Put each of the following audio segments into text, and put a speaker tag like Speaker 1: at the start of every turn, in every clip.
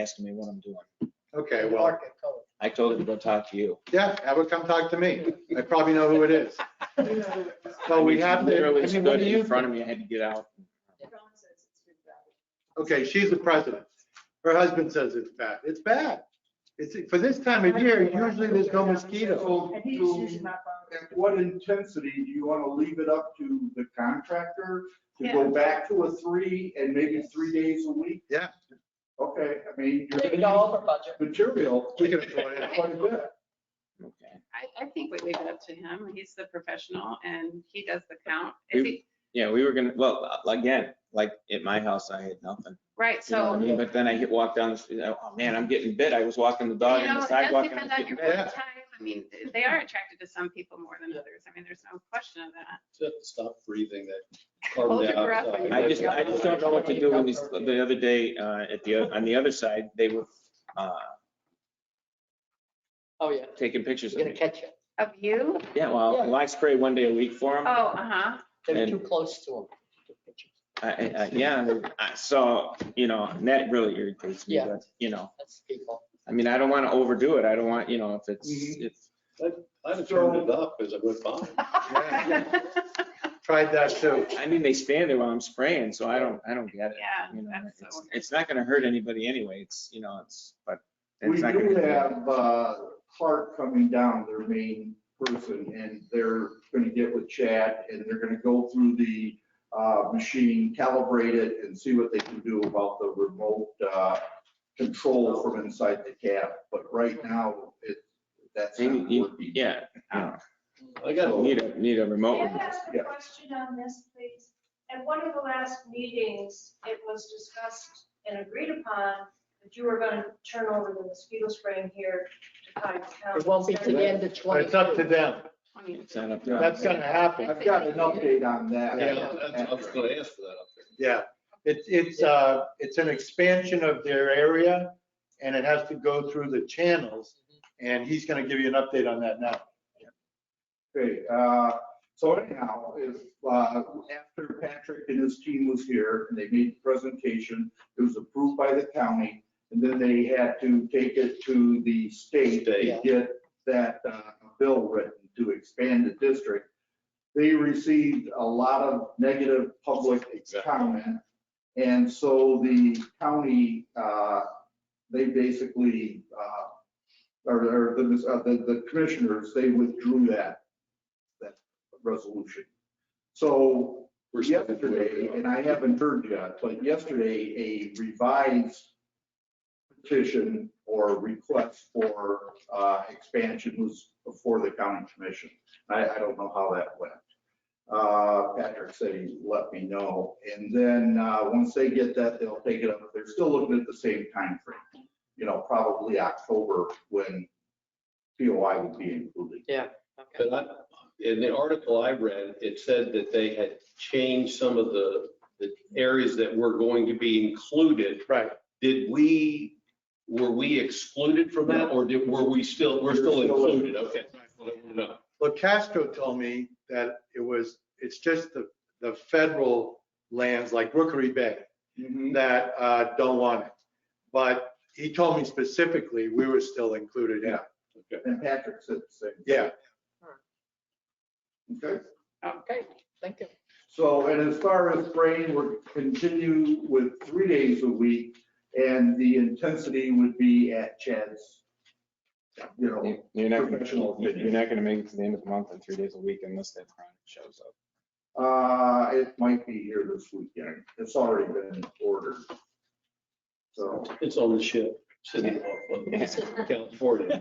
Speaker 1: asking me what I'm doing.
Speaker 2: Okay, well,
Speaker 1: I told him to go talk to you.
Speaker 2: yeah, have her come talk to me. I probably know who it is. So we have to, I
Speaker 3: Literally
Speaker 2: mean, what
Speaker 3: stood
Speaker 2: do you,
Speaker 3: in front of me, I had to get out.
Speaker 2: okay, she's the president. Her husband says it's bad. It's bad. It's, for this time of year, usually there's no mosquito.
Speaker 4: So,
Speaker 5: And he's
Speaker 4: so
Speaker 5: using my phone.
Speaker 4: at what intensity do you want to leave it up to the contractor to go back to a three and maybe three days a week?
Speaker 2: Yeah.
Speaker 4: Okay, I mean, you're
Speaker 5: Leave
Speaker 4: going
Speaker 5: it all
Speaker 4: to
Speaker 5: over budget.
Speaker 4: need material
Speaker 2: We can avoid it.
Speaker 4: quite a bit.
Speaker 3: Okay.
Speaker 6: I, I think we leave it up to him. He's the professional and he does the count. If he,
Speaker 3: Yeah, we were gonna, well, uh, again, like at my house, I had nothing.
Speaker 6: right,
Speaker 3: You know what I
Speaker 6: so,
Speaker 3: mean? But then I hit, walked down the street, oh man, I'm getting bit. I was walking the
Speaker 6: you know,
Speaker 3: dog on the
Speaker 6: it
Speaker 3: sidewalk
Speaker 6: does
Speaker 3: and I was
Speaker 6: depend on
Speaker 3: getting
Speaker 6: your
Speaker 3: bit.
Speaker 6: work
Speaker 2: Yeah.
Speaker 6: time. I mean, they are attracted to some people more than others. I mean, there's no question of that.
Speaker 7: Just have to stop breathing that
Speaker 6: Hold
Speaker 7: carbon
Speaker 6: your breath when
Speaker 7: dioxide.
Speaker 6: you're
Speaker 3: I just, I just don't know what to do when these, the other day, uh, at the, on the other side, they were, uh,
Speaker 5: Oh, yeah.
Speaker 3: taking pictures
Speaker 5: He's
Speaker 3: of
Speaker 5: gonna
Speaker 3: me.
Speaker 5: catch you.
Speaker 6: Of you?
Speaker 3: Yeah, well,
Speaker 5: Yeah.
Speaker 3: well, I spray one day a week for
Speaker 6: Oh,
Speaker 3: them.
Speaker 6: uh-huh.
Speaker 5: They're
Speaker 3: And-
Speaker 5: too close to him.
Speaker 3: I, I, yeah, I- so, you know, and that really irritates me,
Speaker 5: Yeah.
Speaker 3: but, you know,
Speaker 5: That's people.
Speaker 3: I mean, I don't want to overdo it. I don't want, you know, if it's,
Speaker 4: Mhm.
Speaker 3: if
Speaker 7: I'd have turned it up as a good bomb.
Speaker 2: Yeah, Tried that too.
Speaker 3: I mean, they stand there while I'm spraying, so I don't, I don't get it.
Speaker 6: Yeah,
Speaker 3: You know,
Speaker 6: that's
Speaker 3: it's,
Speaker 6: so-
Speaker 3: it's not gonna hurt anybody anyway. It's, you know, it's, but
Speaker 4: We
Speaker 3: it's not
Speaker 4: do
Speaker 3: gonna.
Speaker 4: have uh, Clark coming down, their main person, and they're going to get with Chad, and they're going to go through the uh, machine, calibrate it, and see what they can do about the remote uh, control from inside the cab. But right now, it, that's
Speaker 3: You-
Speaker 4: not
Speaker 3: you-
Speaker 4: working.
Speaker 3: Yeah, you know,
Speaker 7: I got a
Speaker 3: need a, need a remote.
Speaker 8: Can
Speaker 3: one.
Speaker 8: I ask
Speaker 4: Yeah.
Speaker 8: a question on this, please? At one of the last meetings, it was discussed and agreed upon that you were going to turn over the mosquito spraying here to Cottington County.
Speaker 5: It won't be to the end of
Speaker 2: But
Speaker 5: 20.
Speaker 2: it's up to them.
Speaker 3: It's not up to us.
Speaker 2: That's gonna happen.
Speaker 4: I've got an update on that.
Speaker 2: Yeah,
Speaker 7: that's- I was gonna ask for that up there.
Speaker 2: Yeah, it's, it's, uh, it's an expansion of their area and it has to go through the channels. And he's gonna give you an update on that now.
Speaker 4: Okay, uh, so anyhow, if, uh, after Patrick and his team was here and they made the presentation, it was approved by the county, and then they had to take it to the state to
Speaker 7: State.
Speaker 4: get that, uh, bill written to expand the district. They received a lot of negative public
Speaker 7: Exactly.
Speaker 4: comment. And so the county, uh, they basically, uh, or, or the, uh, the the commissioners, they withdrew that, that resolution. So
Speaker 7: We're still-
Speaker 4: yesterday, and I haven't heard yet, but yesterday, a revised petition or request for, uh, expansion was before the county commission. I, I don't know how that went. Uh, Patrick said he let me know. And then, uh, once they get that, they'll take it up. They're still looking at the same time frame. You know, probably October when POI would be included.
Speaker 5: Okay.
Speaker 7: But I, in the article I read, it said that they had changed some of the, the areas that were going to be included.
Speaker 2: Right.
Speaker 7: Did we, were we excluded from that or did, were we still, we're still included? Okay. No.
Speaker 2: Well, Castro told me that it was, it's just the, the federal lands like Rookery Bay
Speaker 4: Mm-hmm.
Speaker 2: that, uh, don't want it. But he told me specifically, we were still included in it.
Speaker 4: And Patrick said the same.
Speaker 2: Yeah,
Speaker 4: Okay.
Speaker 5: Okay, thank you.
Speaker 4: So, and as far as spraying, we're continue with three days a week, and the intensity would be at Chad's, you know,
Speaker 3: You- You're not,
Speaker 4: Professional
Speaker 3: gonna-
Speaker 4: opinion.
Speaker 3: you're not gonna make it to the end of the month and three days a week unless that chronic shows up.
Speaker 4: uh, it might be here this weekend. It's already been ordered. So,
Speaker 7: It's on the ship, sitting off of California.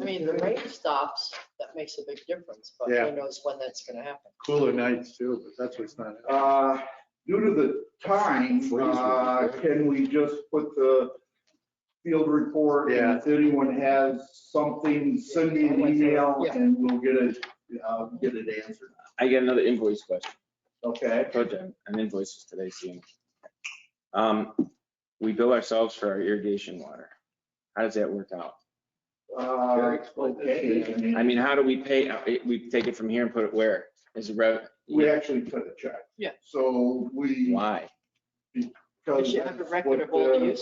Speaker 5: I mean, the rain stops, that makes a big difference, but
Speaker 2: Yeah.
Speaker 5: who knows when that's gonna happen.
Speaker 2: cooler nights too, but that's what's not.
Speaker 4: uh, due to the time, uh, can we just put the field report? and If anyone has something, send me an email, and we'll get it, uh, get it answered.
Speaker 3: I got another invoice question.
Speaker 4: Okay?
Speaker 3: project and invoices today seeing. Um, we bill ourselves for our irrigation water. How does that work out?
Speaker 4: Uh, okay. I mean,
Speaker 3: I mean, how do we pay, uh, it- we take it from here and put it where? Is it rev?
Speaker 4: We actually cut a check.
Speaker 5: Yeah.
Speaker 4: So we,
Speaker 3: Why?
Speaker 5: They should have a reputable use.